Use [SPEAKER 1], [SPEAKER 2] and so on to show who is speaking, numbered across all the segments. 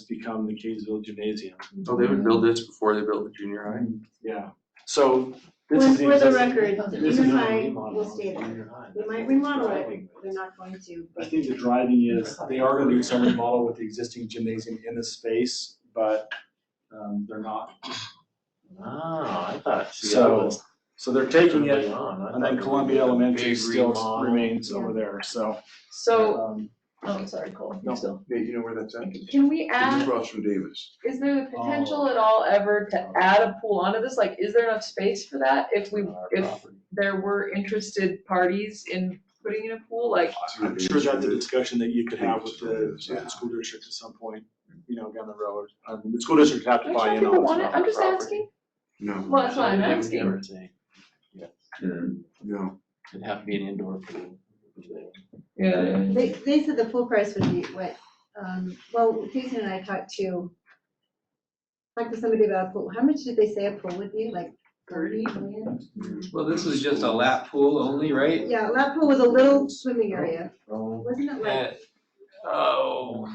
[SPEAKER 1] has become the Kaysville Gymnasium.
[SPEAKER 2] Oh, they would build this before they built the junior high?
[SPEAKER 3] Mm.
[SPEAKER 1] Yeah, so this
[SPEAKER 4] For
[SPEAKER 1] is the
[SPEAKER 4] for the
[SPEAKER 1] existing.
[SPEAKER 4] record, the
[SPEAKER 1] this is
[SPEAKER 4] junior
[SPEAKER 1] not a
[SPEAKER 4] high
[SPEAKER 1] remodel,
[SPEAKER 4] will
[SPEAKER 1] it's
[SPEAKER 4] stay
[SPEAKER 1] a
[SPEAKER 4] there.
[SPEAKER 1] junior high.
[SPEAKER 4] We might
[SPEAKER 1] It's
[SPEAKER 4] remodel it,
[SPEAKER 1] driving.
[SPEAKER 4] they're not going to,
[SPEAKER 1] I
[SPEAKER 4] but
[SPEAKER 1] think the driving is, they are gonna do some remodel with the existing gymnasium in the space, but um they're not.
[SPEAKER 3] Ah, I thought, see, I
[SPEAKER 1] So-
[SPEAKER 3] was
[SPEAKER 1] So they're taking
[SPEAKER 3] early
[SPEAKER 1] it,
[SPEAKER 3] on, I
[SPEAKER 1] and
[SPEAKER 3] thought
[SPEAKER 1] then
[SPEAKER 3] they
[SPEAKER 1] Columbia
[SPEAKER 3] did a
[SPEAKER 1] Elementary
[SPEAKER 3] big
[SPEAKER 1] still
[SPEAKER 3] remodel.
[SPEAKER 1] remains over there, so.
[SPEAKER 5] So,
[SPEAKER 1] um,
[SPEAKER 5] oh, I'm sorry, Cole,
[SPEAKER 1] No.
[SPEAKER 5] you still.
[SPEAKER 6] Yeah, you know where that's at?
[SPEAKER 5] Can we
[SPEAKER 6] It's
[SPEAKER 5] add,
[SPEAKER 6] across from Davis.
[SPEAKER 5] is there the potential at all ever to add a pool onto this? Like, is there enough space for that? If we, if there were interested parties in putting in a pool, like,
[SPEAKER 1] I'm sure that's a discussion that you could have with the, with the school district at some point, you know, down the road. Um, the school district would have to
[SPEAKER 5] I'm
[SPEAKER 1] buy
[SPEAKER 5] sure
[SPEAKER 1] in on
[SPEAKER 5] people
[SPEAKER 1] it.
[SPEAKER 5] want it, I'm just
[SPEAKER 3] property.
[SPEAKER 5] asking.
[SPEAKER 6] No,
[SPEAKER 5] Well, that's what I'm asking.
[SPEAKER 6] no.
[SPEAKER 3] It'd have to be an indoor pool.
[SPEAKER 5] Yeah.
[SPEAKER 4] they, they said the pool price would be what, um, well, Jason and I talked to, talked to somebody about a pool, how much did they say a pool would be, like thirty million?
[SPEAKER 7] Well, this was just a lap pool only, right?
[SPEAKER 4] Yeah, lap pool was a little swimming area,
[SPEAKER 3] Oh.
[SPEAKER 4] wasn't it like,
[SPEAKER 7] At- Oh,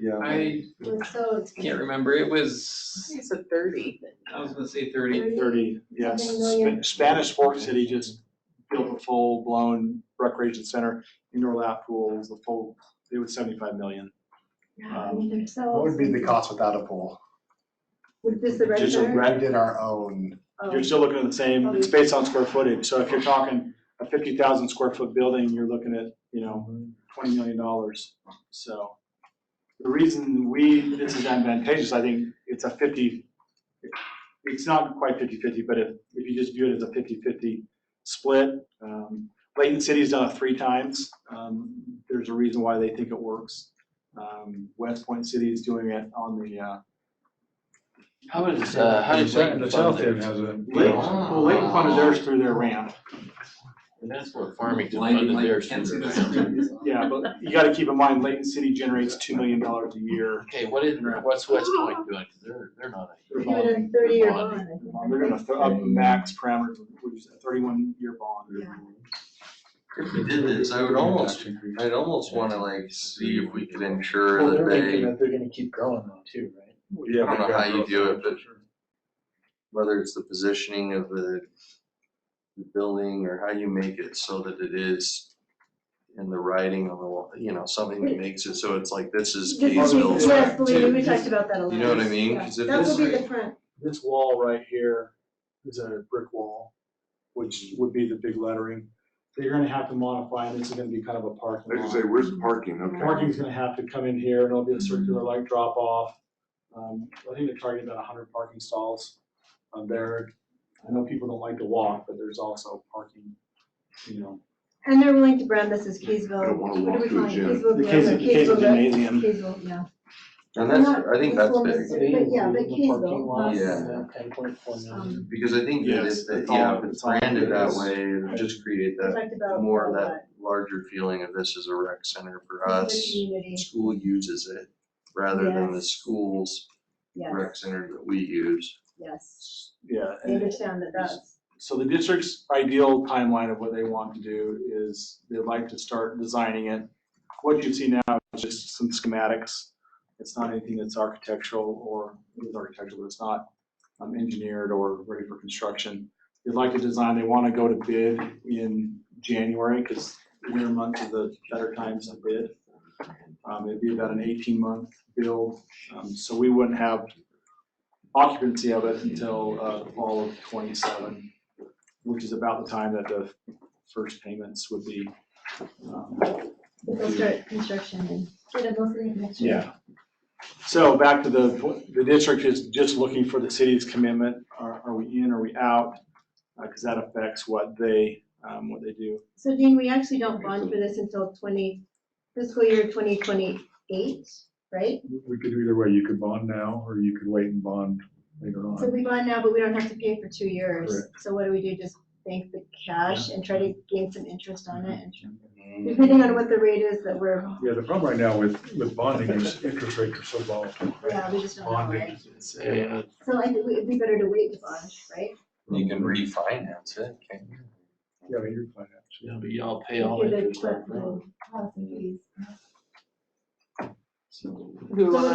[SPEAKER 1] Yeah.
[SPEAKER 7] I
[SPEAKER 4] it was so
[SPEAKER 7] can't
[SPEAKER 4] expensive.
[SPEAKER 7] remember, it
[SPEAKER 5] I
[SPEAKER 7] was,
[SPEAKER 5] think It's a thirty.
[SPEAKER 7] I was gonna say thirty.
[SPEAKER 1] Thirty, yes.
[SPEAKER 4] Something million.
[SPEAKER 1] Spa- Spanish Fork City just built a full-blown recreation center, indoor lap pools, the full, it was seventy-five million.
[SPEAKER 4] Yeah, I mean, they're so.
[SPEAKER 8] What would be the
[SPEAKER 4] expensive.
[SPEAKER 8] cost without a pool?
[SPEAKER 4] Would this the
[SPEAKER 1] Just a
[SPEAKER 4] regular?
[SPEAKER 1] rec-
[SPEAKER 8] We did our own,
[SPEAKER 5] Um,
[SPEAKER 4] Oh.
[SPEAKER 1] You're still looking at the same, it's based on square footage, so if you're talking a fifty thousand square foot building, you're looking at, you know, twenty million dollars, so. The reason we, this is advantageous, I think it's a fifty, it's not quite fifty-fifty, but if, if you just view it as a fifty-fifty split, um, Layton City's done it three times, um, there's a reason why they think it works. Um, West Point City is doing it on the, uh,
[SPEAKER 3] How is, uh, how does Layton fund theirs?
[SPEAKER 1] Lake, well, Layton funded theirs through their ramp.
[SPEAKER 3] And that's what Farmington
[SPEAKER 7] Lighting,
[SPEAKER 3] funded
[SPEAKER 7] like,
[SPEAKER 3] theirs
[SPEAKER 7] can't see
[SPEAKER 3] through.
[SPEAKER 7] the-
[SPEAKER 1] Yeah, but you gotta keep in mind, Layton City generates two million dollars a year.
[SPEAKER 3] Okay, what is, what's West Point doing? 'Cause they're, they're not a
[SPEAKER 1] They're
[SPEAKER 4] Give it a
[SPEAKER 1] bonding.
[SPEAKER 4] thirty year
[SPEAKER 3] Bonding.
[SPEAKER 4] bond. I think.
[SPEAKER 1] They're gonna th- up max parameters, which is a thirty-one year bond.
[SPEAKER 4] Yeah.
[SPEAKER 2] If we did this, I would almost, I'd almost wanna like see if we could ensure that they,
[SPEAKER 3] they're gonna keep growing though too, right?
[SPEAKER 2] I don't know how you do it, but whether it's the positioning of the the building or how you make it so that it is in the writing on the wall, you know, something that makes it so it's like, this is
[SPEAKER 4] This is-
[SPEAKER 2] Kaysville's.
[SPEAKER 4] Yes,
[SPEAKER 2] back
[SPEAKER 4] believe me,
[SPEAKER 2] too.
[SPEAKER 4] we talked about that a lot.
[SPEAKER 2] You know what I mean?
[SPEAKER 4] Yeah.
[SPEAKER 2] 'Cause if
[SPEAKER 4] That will
[SPEAKER 2] it's
[SPEAKER 4] be the
[SPEAKER 2] like-
[SPEAKER 4] front,
[SPEAKER 1] This wall right here is a brick wall, which would be the big lettering. They're gonna have to modify, and this is gonna be kind of a
[SPEAKER 6] I
[SPEAKER 1] parking
[SPEAKER 6] was gonna
[SPEAKER 1] lot.
[SPEAKER 6] say, where's the parking? Okay.
[SPEAKER 1] Parking's gonna have to come in here, and it'll be a circular like drop off. Um, I think they're targeting about hundred parking stalls on there. I know people don't like to walk, but there's also parking, you know,
[SPEAKER 4] and they're willing to brand this as
[SPEAKER 6] I
[SPEAKER 4] Kaysville,
[SPEAKER 6] don't wanna
[SPEAKER 4] what
[SPEAKER 6] walk
[SPEAKER 4] do we
[SPEAKER 6] to
[SPEAKER 4] call
[SPEAKER 6] a
[SPEAKER 4] it,
[SPEAKER 6] gym.
[SPEAKER 4] Kaysville.
[SPEAKER 1] The
[SPEAKER 4] Gym,
[SPEAKER 1] Kays-
[SPEAKER 4] or
[SPEAKER 1] Kaysville
[SPEAKER 4] Gym.
[SPEAKER 1] Gymnasium.
[SPEAKER 4] Kaysville, yeah.
[SPEAKER 2] And that's,
[SPEAKER 4] Not-
[SPEAKER 2] I think
[SPEAKER 4] this
[SPEAKER 2] that's
[SPEAKER 4] one
[SPEAKER 2] big,
[SPEAKER 4] is- But yeah, but Kaysville.
[SPEAKER 2] lot, Yeah.
[SPEAKER 3] Ten point four million.
[SPEAKER 4] um,
[SPEAKER 2] because I think that
[SPEAKER 1] Yes,
[SPEAKER 2] if, they-
[SPEAKER 1] it's all-
[SPEAKER 2] yeah, if it's
[SPEAKER 1] it's all-
[SPEAKER 2] branded that way, it'll just create
[SPEAKER 4] We
[SPEAKER 2] that
[SPEAKER 4] talked about.
[SPEAKER 2] more of
[SPEAKER 4] a lot.
[SPEAKER 2] that larger feeling of this is a rec center for
[SPEAKER 4] This
[SPEAKER 2] us.
[SPEAKER 4] is the community,
[SPEAKER 2] School uses it rather than the
[SPEAKER 4] Yes.
[SPEAKER 2] school's
[SPEAKER 4] yes,
[SPEAKER 2] rec center that we use.
[SPEAKER 4] yes,
[SPEAKER 1] yeah.
[SPEAKER 4] I understand that that's,
[SPEAKER 1] So the district's ideal timeline of what they want to do is they'd like to start designing it. What you see now is just some schematics. It's not anything that's architectural or, it is architectural, but it's not um, engineered or ready for construction. They'd like to design, they want to go to bid in January because winter months are the better times to bid. Um, It'd be about an 18-month build, um, so we wouldn't have occupancy of it until uh, the fall of '27 which is about the time that the first payments would be. um,
[SPEAKER 4] they'll start construction and get it mostly next year.
[SPEAKER 1] Yeah. So back to the, the district is just looking for the city's commitment. Are, are we in, are we out? Because that affects what they, um, what they do.
[SPEAKER 4] So Dean, we actually don't bond for this until twenty, fiscal year twenty twenty-eight, right?
[SPEAKER 9] We could do either way. You could bond now or you could wait and bond later
[SPEAKER 4] So
[SPEAKER 9] on.
[SPEAKER 4] we bond now, but we don't have to pay for two years. So what do we do? Just bank the cash and try to gain some interest on it? and- Depending on what the rate is that we're,
[SPEAKER 9] Yeah, the problem right now with, with bonding is interest rates are so volatile.
[SPEAKER 4] yeah, we just don't know, right?
[SPEAKER 9] Bonding,
[SPEAKER 3] Yeah.
[SPEAKER 4] So I think it'd be better to wait to bond, right?
[SPEAKER 2] You can refinance it, can't you?
[SPEAKER 9] yeah, but you're fine.
[SPEAKER 3] Yeah, but y'all pay all
[SPEAKER 4] Give it
[SPEAKER 3] interest
[SPEAKER 4] a
[SPEAKER 3] up
[SPEAKER 4] quick little pause and please.
[SPEAKER 2] So.
[SPEAKER 5] We were
[SPEAKER 4] So
[SPEAKER 5] one